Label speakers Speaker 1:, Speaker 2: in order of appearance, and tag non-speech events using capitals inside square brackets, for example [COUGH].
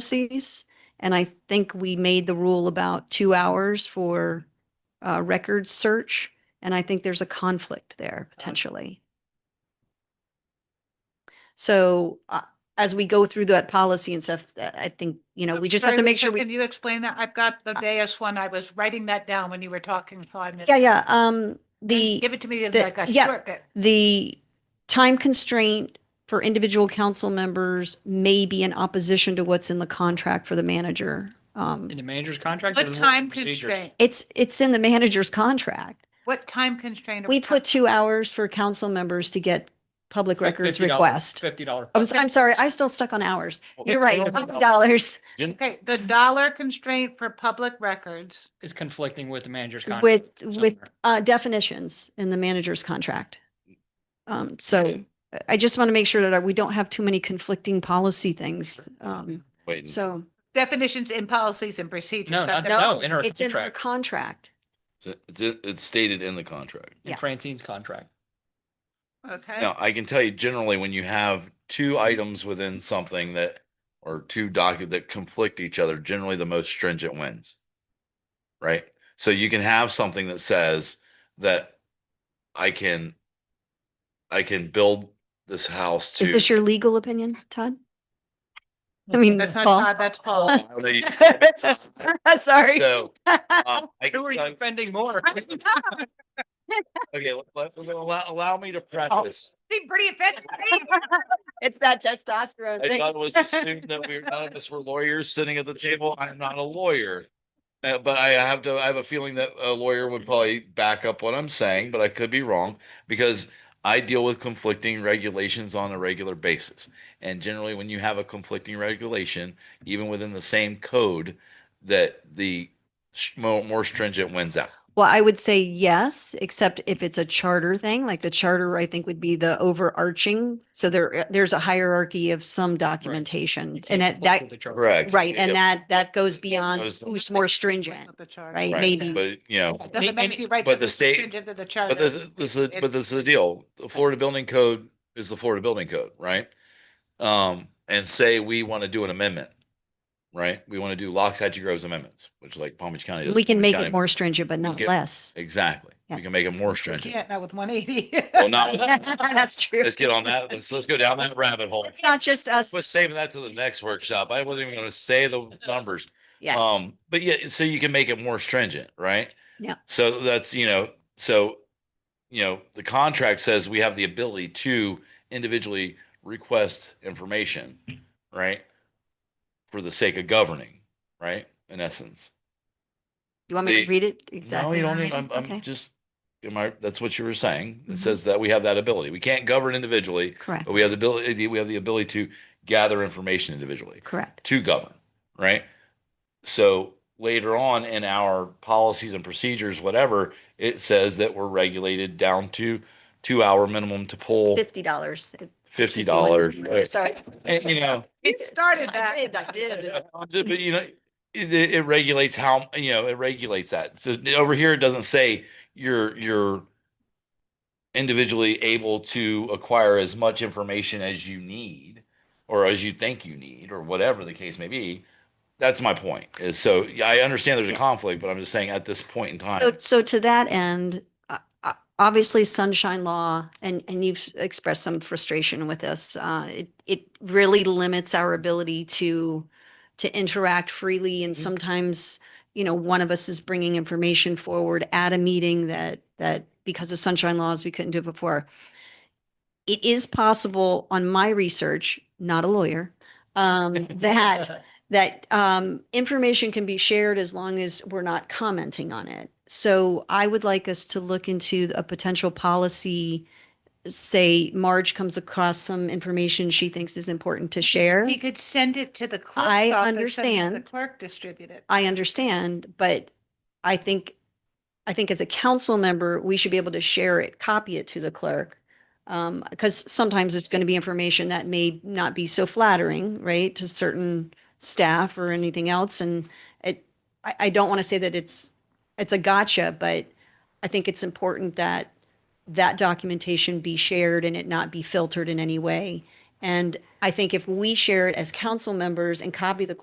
Speaker 1: policies. And I think we made the rule about two hours for uh, record search. And I think there's a conflict there
Speaker 2: Uh-huh.
Speaker 1: potentially. So uh, as we go through that policy and stuff, that I think, you know, we just have
Speaker 2: Sorry,
Speaker 1: to make sure
Speaker 2: Lisa,
Speaker 1: we.
Speaker 2: Can you explain that? I've got the Deus one. I was writing that down when you were talking, so I missed.
Speaker 1: Yeah,
Speaker 2: it.
Speaker 1: yeah. Um, the.
Speaker 2: Give it to me
Speaker 1: the-
Speaker 2: like a
Speaker 1: yeah.
Speaker 2: shortcut.
Speaker 1: the time constraint for individual council members may be in opposition to what's in the contract for the manager. Um,
Speaker 3: In the manager's contract? or
Speaker 2: What
Speaker 3: is it the
Speaker 2: time
Speaker 3: procedure?
Speaker 2: constraint?
Speaker 1: it's, it's in the manager's contract.
Speaker 2: What time constraint? are
Speaker 1: We put
Speaker 2: talking-
Speaker 1: two hours for council members to get public
Speaker 3: Like
Speaker 1: records
Speaker 3: $50
Speaker 1: request.
Speaker 3: Fifty dollar.
Speaker 1: I'm, s- I'm sorry, I still stuck on hours.
Speaker 3: Okay.
Speaker 1: You're right, fifty dollars
Speaker 2: Okay, the dollar constraint for public records.
Speaker 3: Is conflicting with the manager's contract.
Speaker 1: with, with
Speaker 3: somewhere.
Speaker 1: uh, definitions in the manager's contract. Um, so I- I just want to make sure that we don't have too many conflicting policy things. Um,
Speaker 4: Wait, so
Speaker 1: so.
Speaker 2: Definitions in policies and procedures.
Speaker 3: No,
Speaker 2: I've
Speaker 3: not-
Speaker 2: never-
Speaker 3: no, in her
Speaker 1: It's in her contract.
Speaker 3: contract,
Speaker 4: it's, in- it's stated in the contract.
Speaker 3: in
Speaker 1: yeah.
Speaker 3: Francine's contract.
Speaker 2: Okay,
Speaker 4: Now, I can tell you generally when you have two items within something that, or two docu, that conflict each other, generally the most stringent wins. Right? So you can have something that says that I can, I can build this house
Speaker 1: Is
Speaker 4: to.
Speaker 1: this your legal opinion, Todd? I mean,
Speaker 2: that's not,
Speaker 1: Paul.
Speaker 2: Todd, that's
Speaker 4: [LAUGHS] I
Speaker 2: Paul.
Speaker 4: don't know, you-
Speaker 1: Sorry.
Speaker 4: So, um, I
Speaker 3: Who
Speaker 4: can
Speaker 3: are
Speaker 4: tell-
Speaker 3: you spending more?
Speaker 4: okay, let- let- allow, allow me to preface.
Speaker 2: Be pretty offensive.
Speaker 1: It's that testosterone
Speaker 4: I thought it was assumed that
Speaker 1: [LAUGHS]
Speaker 4: we, none of us were lawyers sitting at the table. I'm not a lawyer. Uh, but I have to, I have a feeling that a lawyer would probably back up what I'm saying, but I could be wrong because I deal with conflicting regulations on a regular basis. And generally, when you have a conflicting regulation, even within the same code, that the s- mo- more stringent wins out.
Speaker 1: Well, I would say yes, except if it's a charter thing, like the charter, I think would be the overarching. So there, eh, there's a hierarchy of some documentation and that, that,
Speaker 4: Correct.
Speaker 1: right. And
Speaker 4: Yep.
Speaker 1: that, that goes beyond
Speaker 4: Those-
Speaker 1: who's more stringent,
Speaker 2: The chart.
Speaker 1: right?
Speaker 4: Right,
Speaker 1: Maybe.
Speaker 4: But, you know.
Speaker 2: Doesn't make you right. that's
Speaker 4: but the state-
Speaker 2: stringent to the charter.
Speaker 4: But this, is- this is,
Speaker 2: It-
Speaker 4: but this is the deal. The Florida Building Code is the Florida Building Code, right? Um, and say we want to do an amendment, right? We want to do Locks, Hatchet Groves amendments, which like Palm Beach County. does
Speaker 1: We can
Speaker 4: Palm Beach
Speaker 1: make
Speaker 4: County-
Speaker 1: it more stringent, but not
Speaker 4: get- [LAUGHS]
Speaker 1: less.
Speaker 4: Exactly.
Speaker 1: Yeah.
Speaker 4: We can make it more
Speaker 1: [LAUGHS]
Speaker 4: stringent.
Speaker 2: Can't, not with one eighty.
Speaker 4: Well, not,
Speaker 1: That's true.
Speaker 4: let's get on that. Let's, let's go down that rabbit hole.
Speaker 1: It's not just us.
Speaker 4: Let's save that to the next workshop. I wasn't even going to say the numbers.
Speaker 1: Yeah.
Speaker 4: Um, but yeah, so you can make it more stringent, right?
Speaker 1: Yeah.
Speaker 4: So that's, you know, so, you know, the contract says we have the ability to individually request information, right? For the sake of governing, right? In essence.
Speaker 1: You want me to
Speaker 4: the-
Speaker 1: read it
Speaker 4: No,
Speaker 1: exactly?
Speaker 4: you
Speaker 1: how
Speaker 4: don't
Speaker 1: I
Speaker 4: need, I'm,
Speaker 1: read it?
Speaker 4: I'm
Speaker 1: Okay,
Speaker 4: just, am I, that's what you were saying.
Speaker 1: Mhm.
Speaker 4: It says that we have that ability. We can't govern individually,
Speaker 1: Correct,
Speaker 4: but we have the ability, we have the ability to gather information individually
Speaker 1: correct.
Speaker 4: to govern, right? So later on in our policies and procedures, whatever, it says that we're regulated down to two hour minimum to pull
Speaker 1: Fifty dollars.
Speaker 4: fifty dollars.
Speaker 1: Sorry.
Speaker 4: You know,
Speaker 2: It started
Speaker 1: I
Speaker 2: that.
Speaker 1: did, I did.
Speaker 4: ju- but you know, it, it it regulates how, you know, it regulates that. So over here, it doesn't say you're, you're individually able to acquire as much information as you need or as you think you need or whatever the case may be. That's my point is so yeah, I understand there's a conflict, but I'm just saying at this point in
Speaker 1: So,
Speaker 4: time,
Speaker 1: so to that end, uh, uh, obviously sunshine law, and, and you've expressed some frustration with this. Uh, it, it really limits our ability to, to interact freely and
Speaker 4: Mhm.
Speaker 1: sometimes, you know, one of us is bringing information forward at a meeting that, that because of sunshine laws, we couldn't do before. It is possible on my research, not a lawyer, um, that that um, information can be shared as long as we're not commenting on it. So I would like us to look into a potential policy. Say Marge comes across some information she thinks is important to share.
Speaker 2: He could send it to the clerk.
Speaker 1: I
Speaker 2: The
Speaker 1: understand.
Speaker 2: clerk distribute it.
Speaker 1: I understand, but I think, I think as a council member, we should be able to share it, copy it to the clerk. Um, because sometimes it's going to be information that may not be so flattering, right, to certain staff or anything else. And it, I, I don't want to say that it's, it's a gotcha, but I think it's important that that documentation be shared and it not be filtered in any way. And I think if we share it as council members and copy the